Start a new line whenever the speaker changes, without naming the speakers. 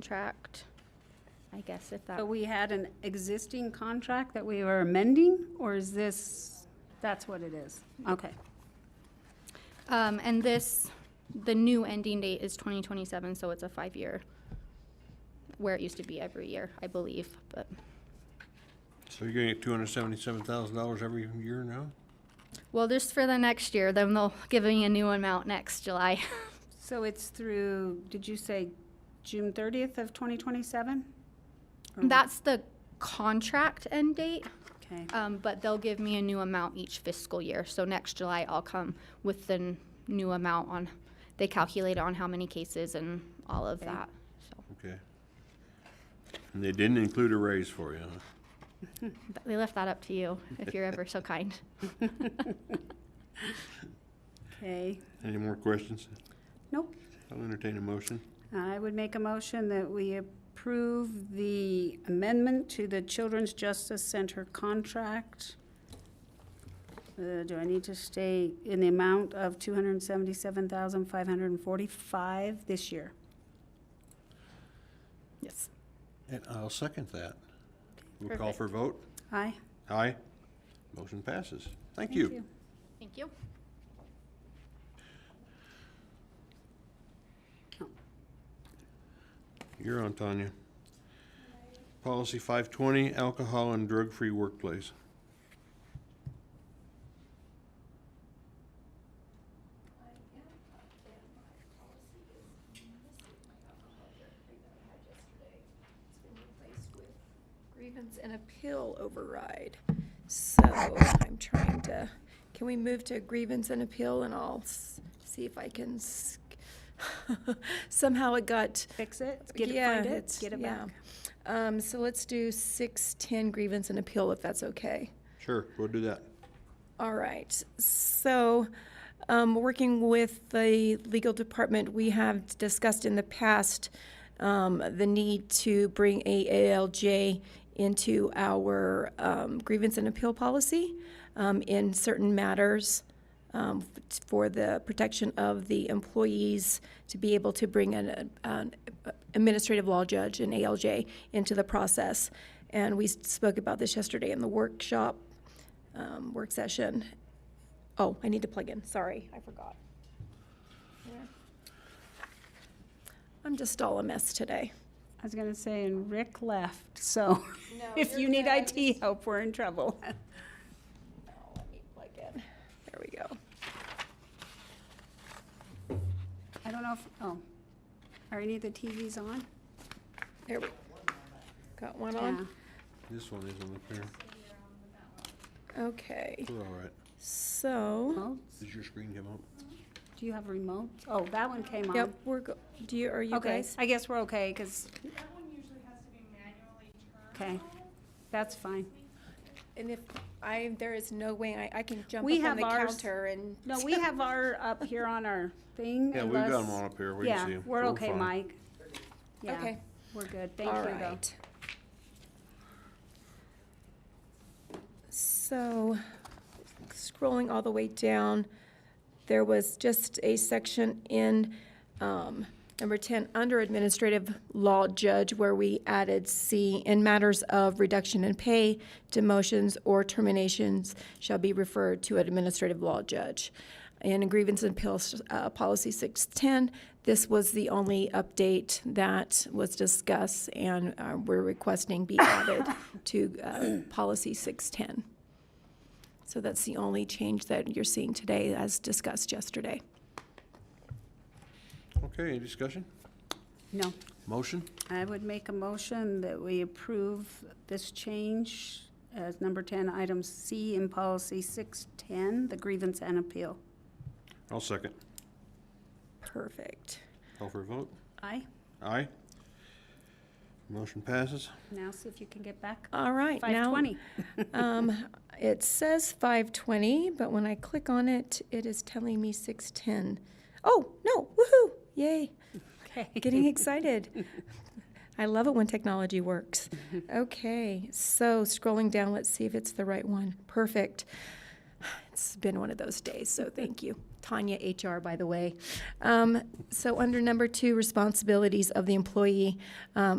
contract, I guess if that,
But we had an existing contract that we were amending, or is this, that's what it is? Okay.
um, and this, the new ending date is twenty twenty-seven, so it's a five-year, where it used to be every year, I believe, but,
So you're gonna get two hundred seventy-seven thousand dollars every year now?
well, just for the next year, then they'll give me a new amount next July.
So it's through, did you say June thirtieth of twenty twenty-seven?
That's the contract end date,
Okay,
um, but they'll give me a new amount each fiscal year, so next July I'll come with the n- new amount on, they calculate on how many cases and all of
Okay.
that, so.
Okay. And they didn't include a raise for you, huh?
But we left that up to you, if you're ever so kind.
okay.
Any more questions?
Nope.
I'll entertain a motion.
I would make a motion that we approve the amendment to the Children's Justice Center contract. Uh, Do I need to stay in the amount of two hundred and seventy-seven thousand, five hundred and forty-five this year?
Yes.
And I'll second that. We'll call for a vote.
Aye?
Aye. Motion passes. Thank you.
Thank you.
You're on, Tanya. Policy five twenty, alcohol and drug-free workplace.
replaced with grievance and appeal override. So I'm trying to, can we move to grievance and appeal and I'll s- see if I can s- somehow it got.
Fix it? Get it,
Yeah,
find it,
it's-
get it
yeah.
back?
Um, so let's do six, ten grievance and appeal if that's okay.
Sure, we'll do that.
All right, so, um, working with the legal department, we have discussed in the past, um, the need to bring AALJ into our, um, grievance and appeal policy, um, in certain matters, um, for the protection of the employees to be able to bring an, an administrative law judge, an ALJ, into the process. And we spoke about this yesterday in the workshop, um, work session. Oh, I need to plug in, sorry, I forgot. There. I'm just all a mess today.
I was gonna say, and Rick left, so if you need IT help, we're in trouble.
Oh, let me plug in. There we go.
I don't know if, oh, are any of the TVs on?
There we, got one
Yeah.
on?
This one isn't up here.
Okay,
We're all right.
so,
Remotes?
Does your screen come up?
Do you have remotes? Oh, that one came on.
yep, we're, go- do you, are you
Okay,
guys?
I guess we're okay, because,
That one usually has to be manually turned.
okay, that's fine.
And if I, there is no way I, I can jump
We
up on
have
the
ours.
counter and.
No, we have our up here on our thing.
Yeah, we've got
unless-
them all up here. We can see
Yeah,
'em.
we're okay,
fine.
Mike. Yeah,
Okay.
we're good. Thank
All
you, though.
right. So, scrolling all the way down, there was just a section in um, number 10, under Administrative Law Judge, where we added C, "In matters of reduction in pay, demotions, or terminations shall be referred to an Administrative Law Judge." And in Grievance and Appeals uh, Policy 610, this was the only update that was discussed, and uh, we're requesting be added to uh, Policy 610. So that's the only change that you're seeing today as discussed yesterday.
Okay, any discussion?
No,
Motion?
I would make a motion that we approve this change as number 10, item C in policy 610, the grievance and appeal.
I'll second.
Perfect.
Call for a vote.
Aye.
Aye. Motion passes.
Now see if you can get back.
All right, now.
520.
Um, it says five twenty, but when I click on it, it is telling me six ten. Oh, no, woohoo, yay,
Okay.
getting excited. I love it when technology works. Okay, so scrolling down, let's see if it's the right one. Perfect. It's been one of those days, so thank you. Tanya HR, by the way. Um, So under number two, responsibilities of the employee, um,